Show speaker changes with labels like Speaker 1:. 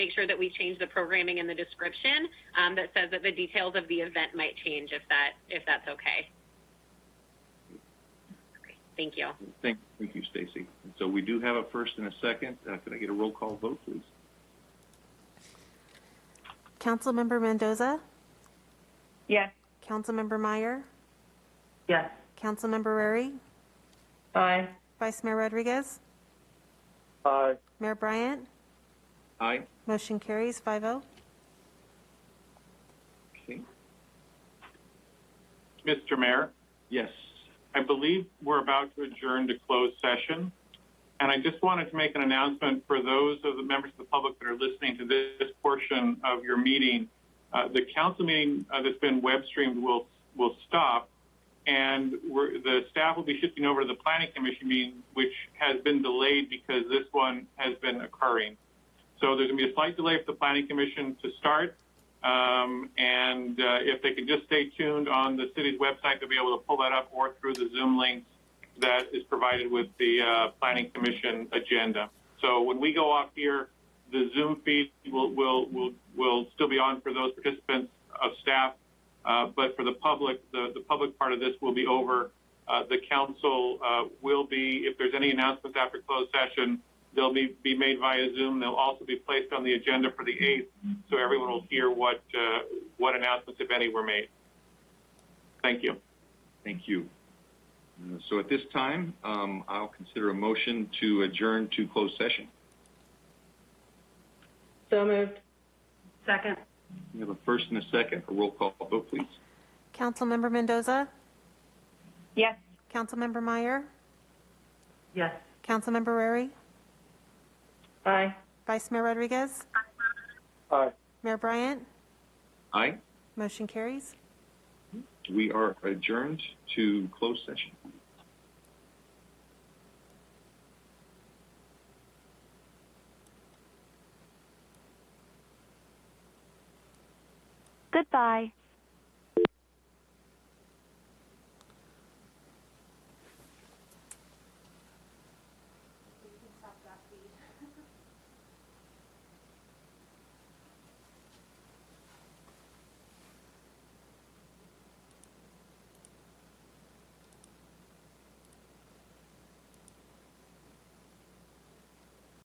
Speaker 1: make sure that we change the programming and the description um, that says that the details of the event might change if that if that's okay. okay thank you.
Speaker 2: Thank, thank you, Stacy. And So we do have a first and a second. Uh, Can I get a roll call vote, please?
Speaker 3: Councilmember Mendoza,
Speaker 4: Yes.
Speaker 3: Councilmember Meyer,
Speaker 4: Yes.
Speaker 3: Councilmember Rary,
Speaker 4: Aye.
Speaker 3: Vice Mayor Rodriguez,
Speaker 5: Aye.
Speaker 3: Mayor Bryant.
Speaker 2: Aye.
Speaker 3: Motion carries oh. 5-0.
Speaker 2: Okay.
Speaker 5: Mr. Mayor,
Speaker 2: Yes.
Speaker 5: I believe we're about to adjourn to closed session. And I just wanted to make an announcement for those of the members of the public that are listening to this portion of your meeting. Uh, the council meeting uh, that's been web streamed will will stop, and we're, the staff will be shifting over to the planning commission meeting, which has been delayed because this one has been occurring. So there's going to be a slight delay for the planning commission to start. Um, and uh, if they could just stay tuned on the city's website, they'll be able to pull that up or through the Zoom links that is provided with the uh, planning commission agenda. So when we go off here, the Zoom feed will will will, will still be on for those participants of staff, uh, but for the public, the, the public part of this will be over. Uh, the council uh, will be, if there's any announcements after closed session, they'll be, be made via Zoom. They'll also be placed on the agenda for the 8th, so everyone will hear what, uh, what announcements, if any, were made. Thank you.
Speaker 2: Thank you. Uh, So at this time, um, I'll consider a motion to adjourn to closed session.
Speaker 4: So moved. Second.
Speaker 2: We have a first and a second. A roll call vote, please.
Speaker 3: Councilmember Mendoza,
Speaker 4: Yes.
Speaker 3: Councilmember Meyer,
Speaker 4: Yes.
Speaker 3: Councilmember Rary,
Speaker 4: Aye.
Speaker 3: Vice Mayor Rodriguez,
Speaker 5: Aye.
Speaker 3: Mayor Bryant.
Speaker 2: Aye.
Speaker 3: Motion carries.
Speaker 2: We are adjourned to closed session.
Speaker 6: Goodbye.